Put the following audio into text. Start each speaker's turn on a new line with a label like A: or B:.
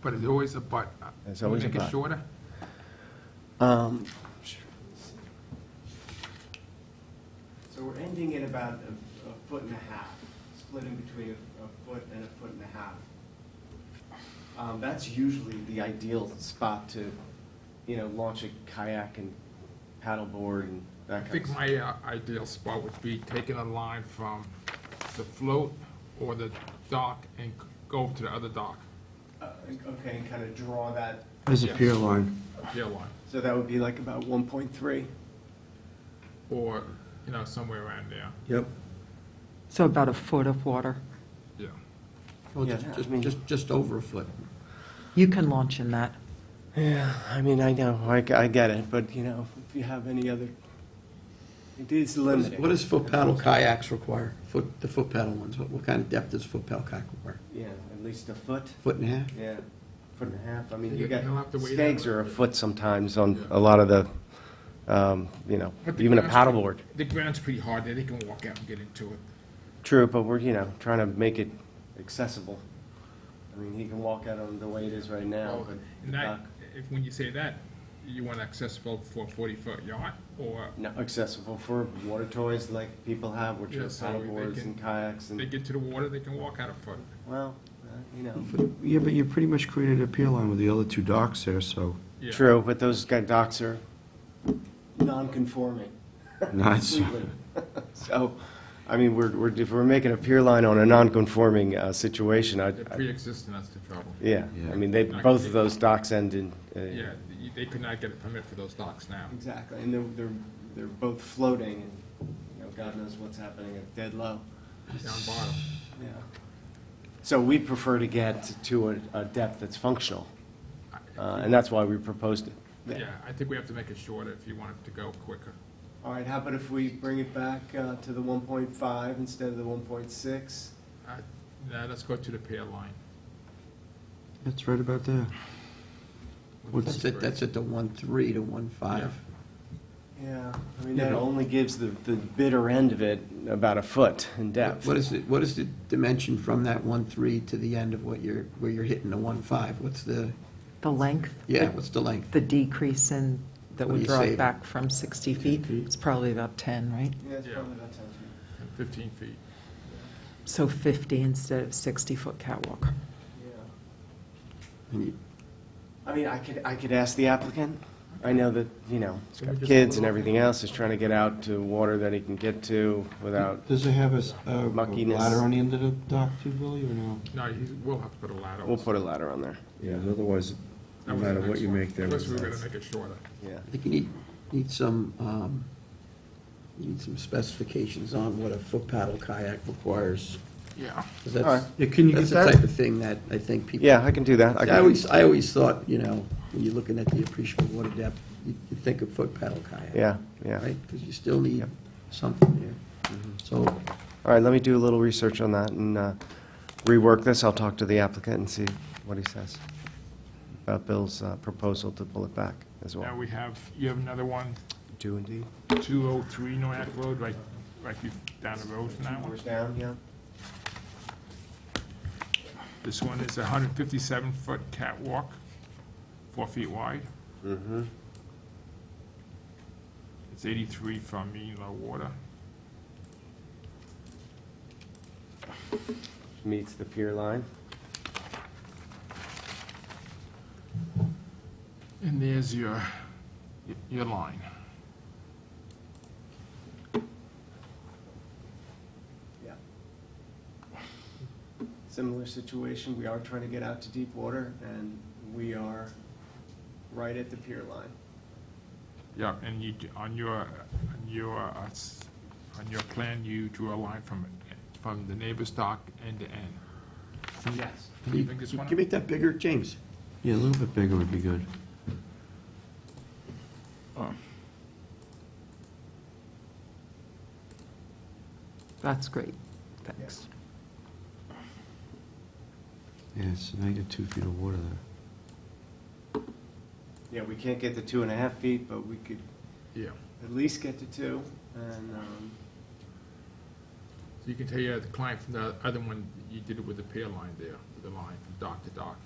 A: but it's always a but.
B: There's always a
A: Make
B: but.
A: it shorter?
C: Um, So we're ending at about a, a foot and a half, split in between a, a foot and a foot and a half. Um, that's usually the ideal spot to, you know, launch a kayak and paddleboard and that
A: I
C: kind of
A: think
C: stuff.
A: my uh, ideal spot would be taking a line from the float or the dock and c- go over to the other dock,
C: Uh, Okay, and kind of draw that,
B: There's a
A: Yeah.
B: pier line.
A: pier line,
C: so that would be like about one point three.
A: or, you know, somewhere around there,
B: Yep.
D: So about a foot of water.
A: yeah.
E: Well,
C: Yeah,
E: Oh, just,
C: I
E: just-
C: mean-
E: just, just over a foot.
D: You can launch in that.
C: Yeah, I mean, I know, I, g- I get it, but you know, if you have any other, it is limited.
E: What does foot paddle kayaks require? Foot, the foot paddle ones, what, what kind of depth does foot paddle kayak require?
C: Yeah, at least a foot.
E: Foot and a half?
C: Yeah, foot and a half, I mean,
A: You-
C: you got,
A: you'll have to wait
C: stags
A: out.
C: are a foot sometimes on
A: Yeah.
C: a lot of the, um, you know,
A: But the
C: even a
A: ground's
C: paddleboard.
A: The ground's pretty hard there, they can walk out and get into it.
C: True, but we're, you know, trying to make it accessible. I mean, he can walk out on the way it is right now,
A: Well,
C: but
A: Oh, And that, if, when you say that, you want accessible for a forty-foot yacht, or
C: not accessible for water toys like people have, which
A: Yeah,
C: are
A: so they
C: paddleboards
A: can-
C: and kayaks
A: they
C: and,
A: get to the water, they can walk out a foot.
C: well, uh, you know.
B: Yeah, but you pretty much created a pier line with the other two docks there, so.
A: Yeah.
C: True, but those guy docks are non-conforming.
B: Nice.
C: Completely. So, I mean, we're, we're, if we're making a pier line on a non-conforming uh, situation, I,
A: They're
C: I-
A: pre-existing, that's the trouble.
C: yeah,
B: Yeah.
C: I mean, they, both of those docks end in. uh,
A: Yeah, you- they could not get a permit for those docks now.
C: Exactly, and they're, they're, they're both floating, and, you know, God knows what's happening at dead low.
A: down bottom.
C: Yeah. So we'd prefer to get to a, a depth that's functional, uh, and that's why we proposed it.
A: Yeah, I think we have to make it shorter if you want it to go quicker.
C: All right, how about if we bring it back uh, to the one point five instead of the one point six?
A: Uh, Now, let's go to the pier line.
B: It's right about there.
E: That's at, that's at the one three to one five.
C: Yeah, I mean,
E: Yeah,
C: that
E: but-
C: only gives the, the bitter end of it about a foot in depth.
E: What is it, what is the dimension from that one three to the end of what you're, where you're hitting the one five? What's the,
D: The length?
E: yeah, what's the length?
D: The decrease in,
E: What
D: that
E: do
D: would
E: you
D: draw
E: say?
D: it back from 60 feet,
B: feet?
D: it's probably about 10, right?
C: Yeah, it's
A: Yeah.
C: probably about ten feet.
A: and Fifteen feet.
D: So 50 instead of 60-foot catwalk.
C: Yeah.
E: And you-
C: I mean, I could, I could ask the applicant. I know that, you know, he's
A: Can we
C: got
A: just
C: kids
A: put
C: and
A: it off?
C: everything else, he's trying to get out to water that he can get to without,
B: Does it have a s- a a
C: Muckiness.
B: ladder on the end of the dock too, Billy, or no?
A: No, he will have to put a ladder.
C: we'll put a ladder on there.
B: Yeah, otherwise,
A: That was the next one. Unless we were gonna make it shorter.
C: Yeah.
E: I think you need, need some, um, you need some specifications on what a foot paddle kayak requires.
A: Yeah.
E: 'Cause that's,
C: All
B: Yeah, can you
E: that's
B: get
E: the
B: that?
E: type of thing that I think people.
C: Yeah, I can do that. I
E: I
C: can,
E: always, I always thought, you know, when you're looking at the appreciable water depth, you you think of foot paddle kayak.
C: yeah, yeah. Mm-hmm.
E: Right, because you still need something there. So,
C: All right, let me do a little research on that and uh, rework this. I'll talk to the applicant and see what he says about Bill's uh, proposal to pull it back as well.
A: Now, we have, you have another one,
C: Do indeed.
A: two oh three Noack Road, right, right be- down the road from that one.
C: down, yeah.
A: This one is a hundred fifty-seven foot catwalk, four feet wide.
C: Mm-hmm.
A: It's eighty-three from mean low water.
C: Meets the pier line.
A: And there's your, your line.
C: Yeah. Similar situation, we are trying to get out to deep water, and we are right at the pier line.
A: Yeah, and you, d- on your, on your, uh, s- on your plan, you drew a line from, from the neighbor's dock end to end.
C: Yes.
A: Can you think this one?
E: can you make that bigger, James?
B: Yeah, a little bit bigger would be good.
D: That's great, thanks.
B: Yeah, so now you got two feet of water there.
C: Yeah, we can't get to two and a half feet, but we could
A: Yeah,
C: at least get to two, and, um,
A: so you can tell your client from the other one, you did it with the pier line there, with the line from dock to dock.